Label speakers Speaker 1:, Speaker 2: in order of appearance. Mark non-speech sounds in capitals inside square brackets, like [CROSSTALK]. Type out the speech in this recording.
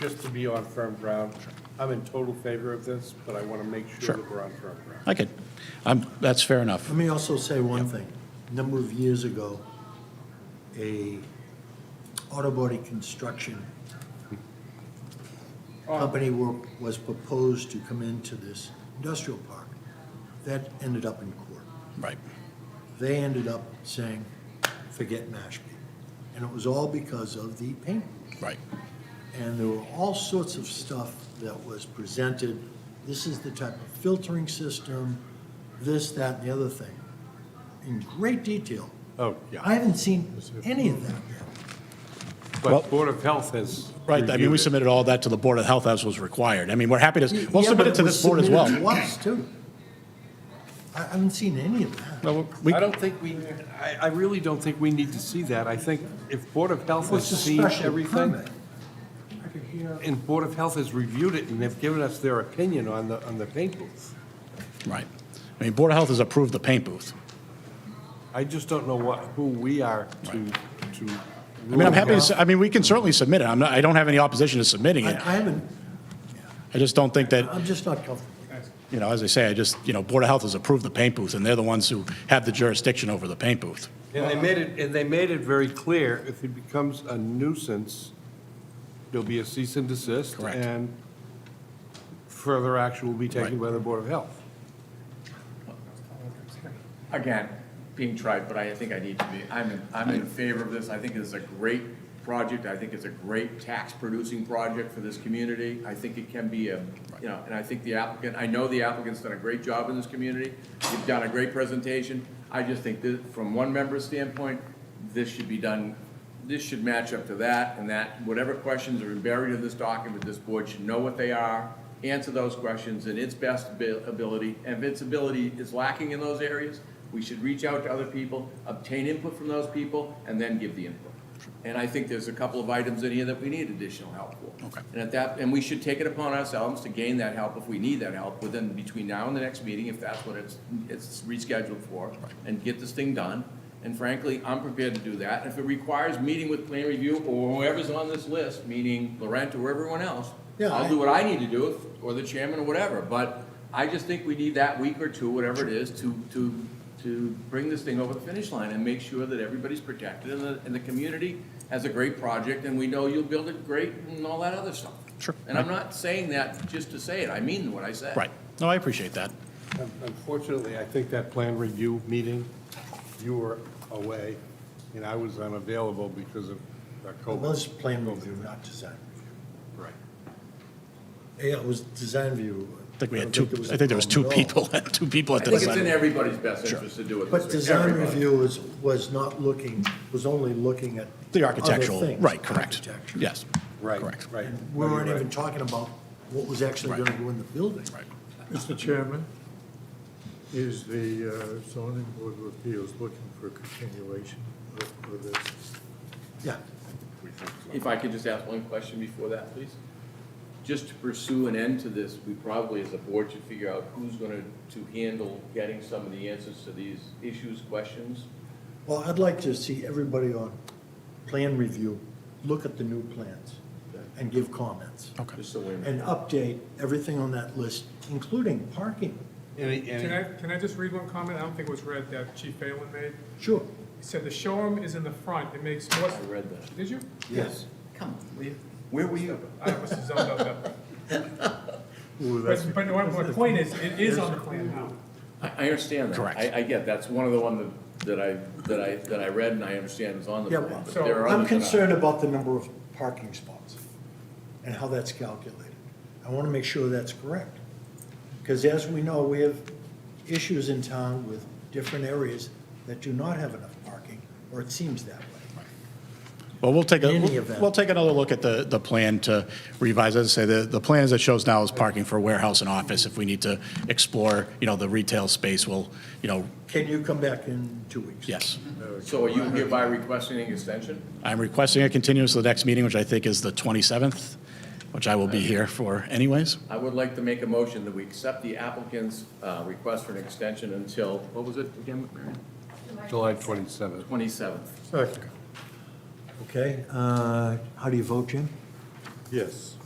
Speaker 1: just to be on firm ground, I'm in total favor of this, but I want to make
Speaker 2: Sure.
Speaker 1: sure that we're on firm ground.
Speaker 2: I could, I'm, that's fair enough.
Speaker 3: Let me also say one thing. A Number of years ago, a auto body construction company were, was proposed to come into this industrial park. That ended up in court.
Speaker 2: Right.
Speaker 3: They ended up saying, forget Mashpee. And it was all because of the paint.
Speaker 2: Right.
Speaker 3: And there were all sorts of stuff that was presented. This is the type of filtering system, this, that, and the other thing, in great detail.
Speaker 1: Oh,
Speaker 3: I haven't seen any of that yet.
Speaker 2: Well-
Speaker 1: But Board of Health has
Speaker 2: Right, I mean, we
Speaker 1: reviewed it.
Speaker 2: submitted all that to the Board of Health as was required. I mean, we're happy to, we'll
Speaker 3: Yeah,
Speaker 2: submit
Speaker 3: but
Speaker 2: it to
Speaker 3: was
Speaker 2: this board as well.
Speaker 3: submitted to us, too. I I haven't seen any of that.
Speaker 2: Well, we-
Speaker 1: I don't think we, I, I really don't think we need to see that. I think if Board of Health has
Speaker 3: It's a
Speaker 1: seen
Speaker 3: special
Speaker 1: everything,
Speaker 3: permit. I could hear-
Speaker 1: and Board of Health has reviewed it, and they've given us their opinion on the, on the paint booth.
Speaker 2: Right. I mean, Board of Health has approved the paint booth.
Speaker 1: I just don't know what, who we are to, to.
Speaker 2: I mean, I'm happy to, s- I mean, we can certainly submit it. I'm not, I don't have any opposition to submitting
Speaker 3: I
Speaker 2: it.
Speaker 3: I haven't,
Speaker 2: I just don't think that,
Speaker 3: I'm just not comfortable.
Speaker 2: you know, as I say, I just, you know, Board of Health has approved the paint booth, and they're the ones who have the jurisdiction over the paint booth.
Speaker 1: And they made it, and they made it very clear, if it becomes a nuisance, there'll be a cease and desist.
Speaker 2: Correct.
Speaker 1: And further action will be taken
Speaker 2: Right.
Speaker 1: by the Board of Health.
Speaker 4: Again, being tried, but I think I need to be, I'm, in- I'm in favor of this. I think it's a great project. I think it's a great tax-producing project for this community. I think it can be a, you know, and I think the applicant, I know the applicant's done a great job in this community. You've done a great presentation. I just think that, from one member's standpoint, this should be done, this should match up to that, and that, whatever questions are buried in this document, this board should know what they are, answer those questions in its best abi- ability, and if its ability is lacking in those areas, we should reach out to other people, obtain input from those people, and then give the input. And I think there's a couple of items in here that we need additional help for.
Speaker 2: Okay.
Speaker 4: And at that, and we should take it upon ourselves to gain that help if we need that help within, between now and the next meeting, if that's what it's, it's rescheduled for, and get this thing done. And frankly, I'm prepared to do that. If it requires meeting with plan review or whoever's on this list, meaning Laurent or everyone else,
Speaker 3: Yeah,
Speaker 4: I'll
Speaker 3: I-
Speaker 4: do what I need to do, if- or the chairman or whatever, but I just think we need that week or two, whatever it is, to, to, to bring this thing over the finish line and make sure that everybody's protected and the, and the community has a great project and we know you'll build it great and all that other stuff.
Speaker 2: Sure.
Speaker 4: And I'm not saying that just to say it, I mean what I said.
Speaker 2: Right. No, I appreciate that.
Speaker 1: Un- Unfortunately, I think that plan review meeting, you were away, and I was unavailable because of uh,
Speaker 3: It was
Speaker 1: COVID.
Speaker 3: plan review, not design review.
Speaker 1: Right.
Speaker 3: Yeah, it was design review.
Speaker 2: I think we had
Speaker 3: don't
Speaker 2: two,
Speaker 3: it was a
Speaker 2: I think there was two
Speaker 3: problem at all.
Speaker 2: people, [LAUGHS] two people
Speaker 4: I
Speaker 2: at the
Speaker 4: think it's in
Speaker 2: design.
Speaker 4: everybody's best interest to do it
Speaker 3: But
Speaker 4: this way,
Speaker 3: design
Speaker 4: everybody.
Speaker 3: review was, was not looking, was only looking at.
Speaker 2: The
Speaker 3: other
Speaker 2: architectural,
Speaker 3: things,
Speaker 2: right, correct.
Speaker 3: architecture.
Speaker 2: Yes.
Speaker 1: Right,
Speaker 2: Correct.
Speaker 1: right.
Speaker 3: And We weren't even talking about what was actually
Speaker 2: Right.
Speaker 3: gonna go in the building.
Speaker 2: Right.
Speaker 5: Mr. Chairman, is the uh, zoning board of appeals looking for a continuation of- of this?
Speaker 3: Yeah,
Speaker 4: If I could just ask one question before that, please. Just to pursue an end to this, we probably, as a board, should figure out who's going to handle getting some of the answers to these issues, questions.
Speaker 3: well, I'd like to see everybody on plan review, look at the new plans and give comments.
Speaker 2: Okay.
Speaker 4: Just so we
Speaker 3: And update everything on that list, including parking.
Speaker 1: Any, any-
Speaker 6: Can I, can I just read one comment? I don't think it was read that Chief Phelan made.
Speaker 3: Sure,
Speaker 6: He said the showroom is in the front. It makes more,
Speaker 4: I read that.
Speaker 6: did you?
Speaker 3: yes.
Speaker 4: Come, where were you?
Speaker 6: I was zoned out
Speaker 4: [LAUGHS]
Speaker 6: that.
Speaker 5: Ooh, that's-
Speaker 6: But, but my, my point is, it is on the plan now.
Speaker 4: I, I understand that.
Speaker 2: Correct.
Speaker 4: I, I get, that's one of the one that, that I, that I, that I read and I understand is on the
Speaker 3: Yeah,
Speaker 4: plan,
Speaker 3: well,
Speaker 4: but
Speaker 6: so
Speaker 4: there are
Speaker 3: I'm
Speaker 4: others that aren't.
Speaker 3: concerned about the number of parking spots and how that's calculated. I want to make sure that's correct. Because as we know, we have issues in town with different areas that do not have enough parking, or it seems that way.
Speaker 2: Well, we'll take, a
Speaker 3: In any
Speaker 2: we'll-
Speaker 3: event.
Speaker 2: we'll take another look at the, the plan to revise. As I say, the, the plan as it shows now is parking for warehouse and office. If we need to explore, you know, the retail space, we'll, you know,
Speaker 3: Can you come back in two weeks?
Speaker 2: yes.
Speaker 4: So are you hereby requesting an extension?
Speaker 2: I'm requesting a continuance to the next meeting, which I think is the 27th, which I will be here for anyways.
Speaker 4: I would like to make a motion that we accept the applicant's, uh, request for an extension until, what was it again, Marion?
Speaker 1: July 27th.
Speaker 4: Twenty-seventh.
Speaker 3: Okay, uh, how do you vote, Jim?
Speaker 5: Yes.